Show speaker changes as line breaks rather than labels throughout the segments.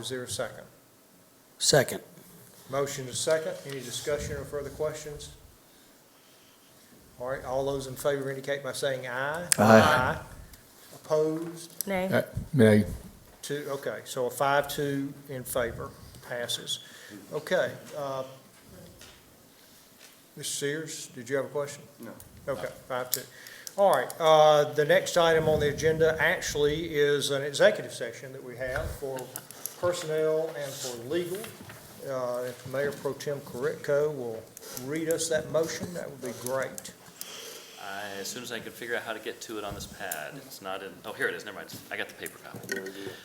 Is there a second?
Second.
Motion is second. Any discussion or further questions? All right, all those in favor indicate by saying aye. Aye. Opposed?
Nay.
Uh, Nay.
Two, okay, so a five-two in favor passes. Okay. uh, Mr. Sears, did you have a question? No. Okay, five-two. All right, uh, the next item on the agenda actually is an executive session that we have for personnel and for legal. Uh, If Mayor Pro Tem Corritco will read us that motion, that would be great.
I- As soon as I can figure out how to get to it on this pad, it's not in, oh, here it is, never mind, I got the paper copy.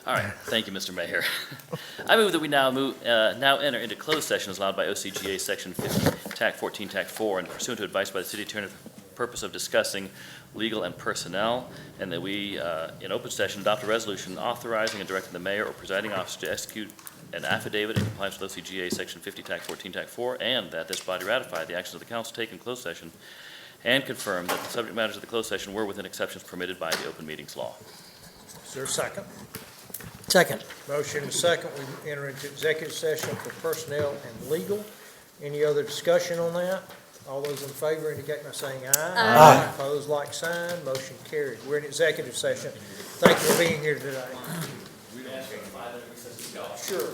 All right, thank you, Mr. Mayor. I move that we now move, uh, now enter into closed session as allowed by OCGA Section 50, TAC 14, TAC 4, and pursuant to advice by the city attorney for the purpose of discussing legal and personnel, and that we, uh, in open session, adopt a resolution authorizing and directing the mayor or presiding officer to execute an affidavit in compliance with OCGA Section 50, TAC 14, TAC 4, and that this body ratify the actions of the council taken in closed session and confirm that the subject matters of the closed session were within exceptions permitted by the open meetings law.
Is there a second?
Second.
Motion is second, we enter into executive session for personnel and legal. Any other discussion on that? All those in favor indicate by saying aye. Aye. Opposed, like sign, motion carried. We're in executive session. Thank you for being here today. Sure.